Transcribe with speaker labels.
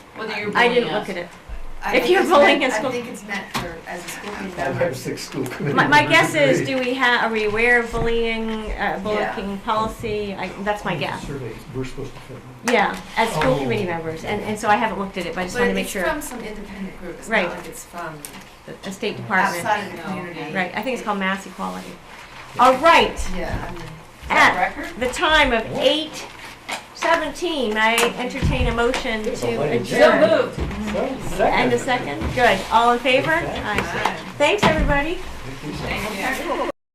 Speaker 1: Whether you're
Speaker 2: Oh,
Speaker 3: I
Speaker 1: bullying
Speaker 3: didn't look
Speaker 1: us.
Speaker 3: at it.
Speaker 2: I
Speaker 3: If
Speaker 2: think
Speaker 3: you're
Speaker 2: it's
Speaker 3: bullying
Speaker 2: meant-
Speaker 3: a school-
Speaker 2: I think it's meant for, as a school committee
Speaker 4: I
Speaker 2: member.
Speaker 4: have six school committee
Speaker 3: My, my
Speaker 4: members
Speaker 3: guess is,
Speaker 4: agree.
Speaker 3: do we have, are we aware of bullying, uh, bullying policy? I, that's my guess.
Speaker 4: Survey, we're supposed to fill it.
Speaker 3: Yeah, as school
Speaker 4: Oh.
Speaker 3: committee members, and, and so I haven't looked at it, but I just
Speaker 2: But
Speaker 3: want to make
Speaker 2: it's
Speaker 3: sure,
Speaker 2: from some independent group, it's
Speaker 3: Right.
Speaker 2: not like it's from
Speaker 3: the- the State Department.
Speaker 2: outside of the
Speaker 1: No,
Speaker 2: community.
Speaker 3: Right, I think it's called mass equality. All right,
Speaker 2: Yeah, I mean,
Speaker 3: at
Speaker 1: Record?
Speaker 3: the time of eight seventeen, I entertain a motion to
Speaker 4: So
Speaker 1: So
Speaker 3: adjourn.
Speaker 1: moved.
Speaker 3: Mm-hmm. And a second, good, all in favor? Aye. Thanks, everybody.
Speaker 4: Thank you.
Speaker 1: Thank you.